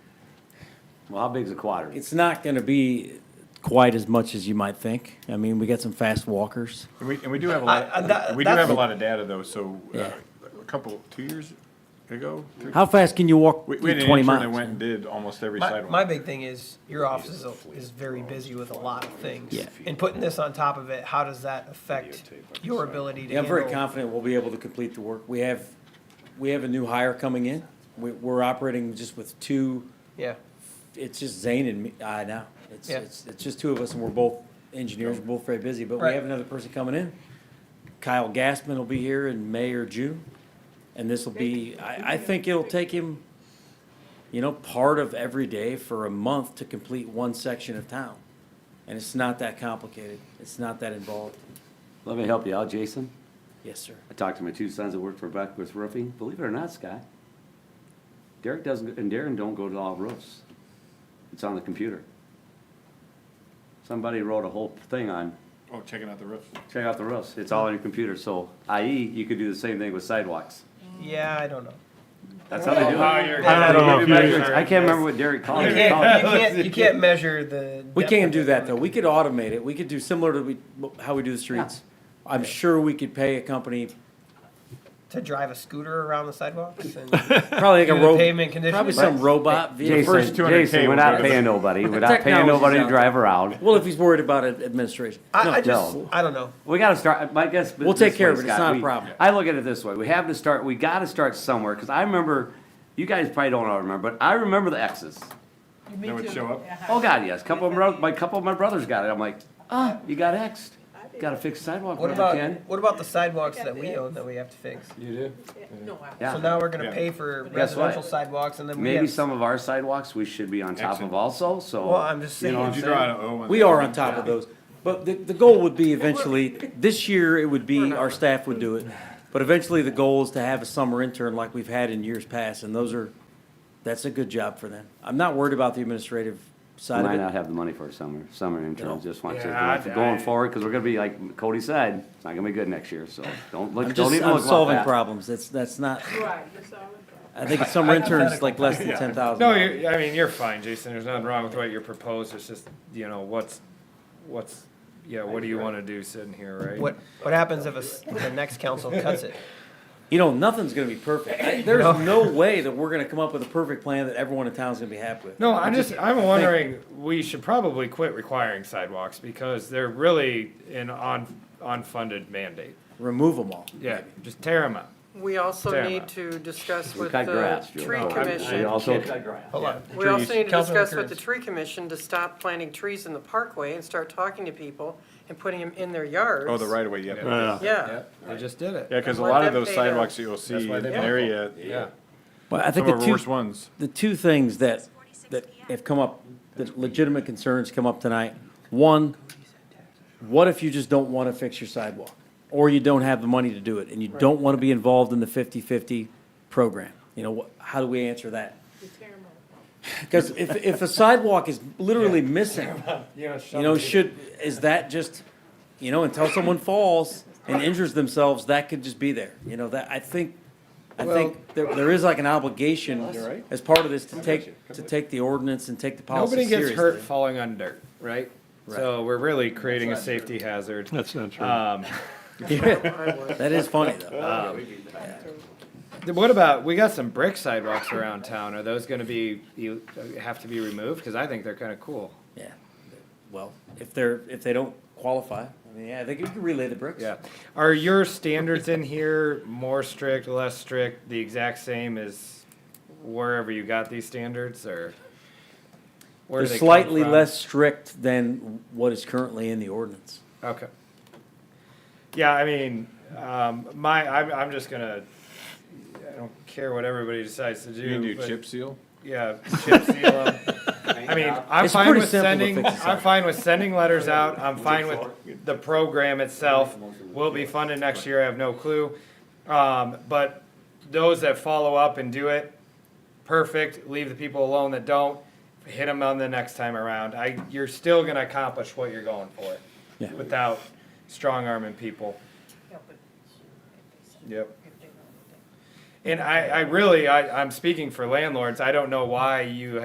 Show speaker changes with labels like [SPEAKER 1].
[SPEAKER 1] Well, how big's a quadrant?
[SPEAKER 2] It's not going to be quite as much as you might think. I mean, we got some fast walkers.
[SPEAKER 3] And we, and we do have a
[SPEAKER 4] I- I- that-
[SPEAKER 3] lot, we do have a
[SPEAKER 4] that's-
[SPEAKER 3] lot of data though, so, uh,
[SPEAKER 2] Yeah.
[SPEAKER 3] a couple, two years ago? three-
[SPEAKER 2] How fast can you walk
[SPEAKER 3] We, we had an
[SPEAKER 2] 20
[SPEAKER 3] intern that
[SPEAKER 2] miles?
[SPEAKER 3] went and did almost every
[SPEAKER 4] My, my
[SPEAKER 3] sidewalk.
[SPEAKER 4] big thing is your office is, a- is very busy with a lot of things.
[SPEAKER 2] Yeah.
[SPEAKER 4] And putting this on top of it, how does that affect your ability to
[SPEAKER 2] Yeah, I'm very
[SPEAKER 4] handle?
[SPEAKER 2] confident we'll be able to complete the work. We have, we have a new hire coming in. We- We're operating just with two,
[SPEAKER 4] Yeah,
[SPEAKER 2] it's just Zane and me, I know. It's,
[SPEAKER 4] Yeah.
[SPEAKER 2] it's, it's just two of us and we're both engineers, we're both very busy, but we
[SPEAKER 4] Right.
[SPEAKER 2] have another person coming in. Kyle Gassman will be here in May or June. And this will be, I, I think it'll take him, you know, part of every day for a month to complete one section of town. And it's not that complicated. It's not that involved.
[SPEAKER 1] Let me help you out, Jason.
[SPEAKER 2] Yes, sir.
[SPEAKER 1] I talked to my two sons that work for Beckwith Roofing. Believe it or not, Scott, Derek doesn't, and Darren don't go to all roofs. It's on the computer. Somebody wrote a whole thing on,
[SPEAKER 3] Oh, checking out the roof.
[SPEAKER 1] check out the roofs. It's all on your computer, so i.e., you could do the same thing with sidewalks.
[SPEAKER 4] yeah, I don't know.
[SPEAKER 1] That's how they do it.
[SPEAKER 3] I
[SPEAKER 1] I can't remember what Derek called
[SPEAKER 4] You
[SPEAKER 1] it.
[SPEAKER 4] can't, you can't, you can't measure the.
[SPEAKER 2] Oh, We
[SPEAKER 4] depth
[SPEAKER 2] can
[SPEAKER 4] of
[SPEAKER 2] do
[SPEAKER 4] it.
[SPEAKER 2] that, though. We could automate it. We could do similar to we- how we do the streets. I'm sure we could pay a company,
[SPEAKER 4] To drive a scooter around the sidewalks and.
[SPEAKER 2] probably like a
[SPEAKER 4] Do the
[SPEAKER 2] ro-
[SPEAKER 4] pavement condition?
[SPEAKER 2] probably some robot
[SPEAKER 1] Jason,
[SPEAKER 2] vehicle.
[SPEAKER 3] first 200K
[SPEAKER 1] Jason, we're
[SPEAKER 3] was
[SPEAKER 1] not
[SPEAKER 3] better.
[SPEAKER 1] paying nobody. We're not paying
[SPEAKER 2] Technology's
[SPEAKER 1] nobody to
[SPEAKER 2] out
[SPEAKER 1] drive around.
[SPEAKER 2] Well, if he's worried about ad- administration.
[SPEAKER 4] I,
[SPEAKER 2] No.
[SPEAKER 4] I just,
[SPEAKER 1] no.
[SPEAKER 4] I don't know.
[SPEAKER 1] We gotta start, my guess.
[SPEAKER 2] We'll
[SPEAKER 1] this
[SPEAKER 2] take care
[SPEAKER 1] way,
[SPEAKER 2] of it. It's
[SPEAKER 1] Scott,
[SPEAKER 2] not a
[SPEAKER 1] we-
[SPEAKER 2] problem.
[SPEAKER 1] I look at it this way, we have to start, we gotta start somewhere, cause I remember, you guys probably don't all remember, but I remember the X's.
[SPEAKER 5] Uh-huh.
[SPEAKER 3] That would show up.
[SPEAKER 1] Oh, God, yes, couple of, my, my couple of my brothers got it, I'm like, ah, you got Xed, gotta fix sidewalk
[SPEAKER 4] What
[SPEAKER 1] where
[SPEAKER 4] about,
[SPEAKER 1] you can.
[SPEAKER 4] what about the sidewalks that we own that we have to fix?
[SPEAKER 3] You do?
[SPEAKER 6] No,
[SPEAKER 4] So
[SPEAKER 1] Yeah,
[SPEAKER 4] now we're gonna
[SPEAKER 3] Yeah.
[SPEAKER 4] pay for
[SPEAKER 1] Guess what?
[SPEAKER 4] residential sidewalks and then we
[SPEAKER 1] maybe
[SPEAKER 4] have.
[SPEAKER 1] some of our sidewalks we should be on top of
[SPEAKER 3] Excellent.
[SPEAKER 1] also, so.
[SPEAKER 4] Well, I'm just
[SPEAKER 1] you know
[SPEAKER 4] saying.
[SPEAKER 1] what
[SPEAKER 3] Did you
[SPEAKER 1] I'm
[SPEAKER 3] draw
[SPEAKER 1] saying?
[SPEAKER 3] an O? on
[SPEAKER 2] We
[SPEAKER 3] the-
[SPEAKER 2] are on top of those. But the, the goal would be eventually, this year it would be, our staff would do it. But eventually the goal is to have a summer intern like we've had in years past, and those are, that's a good job for them. I'm not worried about the administrative side
[SPEAKER 1] Might
[SPEAKER 2] of
[SPEAKER 1] not
[SPEAKER 2] it.
[SPEAKER 1] have the money for a summer, summer
[SPEAKER 2] No.
[SPEAKER 1] intern, just want you
[SPEAKER 3] Yeah,
[SPEAKER 1] to,
[SPEAKER 3] I-
[SPEAKER 1] going
[SPEAKER 3] I-
[SPEAKER 1] forward, cause we're gonna be, like Cody said, it's not gonna be good next year, so don't
[SPEAKER 2] I'm
[SPEAKER 1] look, don't
[SPEAKER 2] just,
[SPEAKER 1] even look
[SPEAKER 2] I'm
[SPEAKER 1] about
[SPEAKER 2] solving
[SPEAKER 1] that.
[SPEAKER 2] problems. That's, that's not,
[SPEAKER 6] Right, you're solid.
[SPEAKER 2] I think a summer intern is like less than ten thousand.
[SPEAKER 7] No, you, I mean, you're fine, Jason, there's nothing wrong with what you proposed, it's just, you know, what's, what's, yeah, what do you wanna do sitting here, right?
[SPEAKER 4] What, what happens if a s the next council cuts it?
[SPEAKER 2] You know, nothing's gonna be perfect. I- There's no way that we're gonna come up with a perfect plan that everyone in town's gonna be happy with.
[SPEAKER 7] No, I'm just, I'm wondering, we should probably quit requiring sidewalks, because they're really an un, unfunded mandate.
[SPEAKER 2] Remove them all.
[SPEAKER 7] Yeah, just tear them up.
[SPEAKER 5] We also
[SPEAKER 7] Damn
[SPEAKER 5] need
[SPEAKER 7] it.
[SPEAKER 5] to discuss
[SPEAKER 1] We
[SPEAKER 5] with
[SPEAKER 1] cut
[SPEAKER 5] the
[SPEAKER 1] grass, Joe.
[SPEAKER 5] tree
[SPEAKER 1] No, I- I
[SPEAKER 5] commission.
[SPEAKER 1] also-
[SPEAKER 4] Hold on.
[SPEAKER 5] We also need to
[SPEAKER 4] Councilman
[SPEAKER 5] discuss with the
[SPEAKER 4] Kearns.
[SPEAKER 5] tree commission to stop planting trees in the parkway and start talking to people and putting them in their yards.
[SPEAKER 3] Oh, the right of way, yeah.
[SPEAKER 5] Yeah,
[SPEAKER 7] They just did it.
[SPEAKER 3] Yeah, cause a
[SPEAKER 5] Let
[SPEAKER 3] lot of
[SPEAKER 5] them
[SPEAKER 3] those
[SPEAKER 5] pay them.
[SPEAKER 3] sidewalks you'll see in an area, yeah,
[SPEAKER 2] Well, I
[SPEAKER 3] some
[SPEAKER 2] think the
[SPEAKER 3] of our
[SPEAKER 2] two,
[SPEAKER 3] worst ones.
[SPEAKER 2] the two things that, that have come up, that legitimate concerns come up tonight. One, what if you just don't want to fix your sidewalk? Or you don't have the money to do it, and you don't want to be involved in the 50-50 program? You know, wh- how do we answer that? Because if, if a sidewalk is literally missing, you know, should, is that just, you know, until someone falls and injures themselves, that could just be there. You know, that, I think, I think there, there is like an obligation as part of this to take, to take the ordinance and take the policy
[SPEAKER 7] Nobody gets
[SPEAKER 2] seriously.
[SPEAKER 7] hurt falling on dirt, right? So we're really creating a safety hazard.
[SPEAKER 8] That's not true.
[SPEAKER 7] Um,
[SPEAKER 5] I would.
[SPEAKER 2] That is funny, though.
[SPEAKER 7] Uh. th- what about, we got some brick sidewalks around town, are those gonna be, you, have to be removed? Cause I think they're kinda cool.
[SPEAKER 2] Yeah. Well, if they're, if they don't qualify, I mean, yeah, they could, you could relay the bricks.
[SPEAKER 7] Yeah. Are your standards in here more strict, less strict, the exact same as wherever you got these standards or? where
[SPEAKER 2] They're
[SPEAKER 7] do they come
[SPEAKER 2] slightly
[SPEAKER 7] from?
[SPEAKER 2] less strict than what is currently in the ordinance.
[SPEAKER 7] Okay. Yeah, I mean, um, my, I'm, I'm just gonna, I don't care what everybody decides to do.
[SPEAKER 3] You can do
[SPEAKER 7] but-
[SPEAKER 3] chip seal?
[SPEAKER 7] Yeah, chip seal 'em. I mean, I'm
[SPEAKER 2] It's
[SPEAKER 7] fine
[SPEAKER 2] pretty
[SPEAKER 7] with
[SPEAKER 2] simple to
[SPEAKER 7] sending,
[SPEAKER 2] fix this
[SPEAKER 7] I'm
[SPEAKER 2] up.
[SPEAKER 7] fine with sending letters out, I'm fine with the program itself, will be funded next year, I have no clue. Um, but those that follow up and do it, perfect, leave the people alone that don't, hit them on the next time around. I, you're still gonna accomplish what you're going for
[SPEAKER 2] Yeah.
[SPEAKER 7] without strong arming people. Yep. And I, I really, I, I'm speaking for landlords, I don't know why you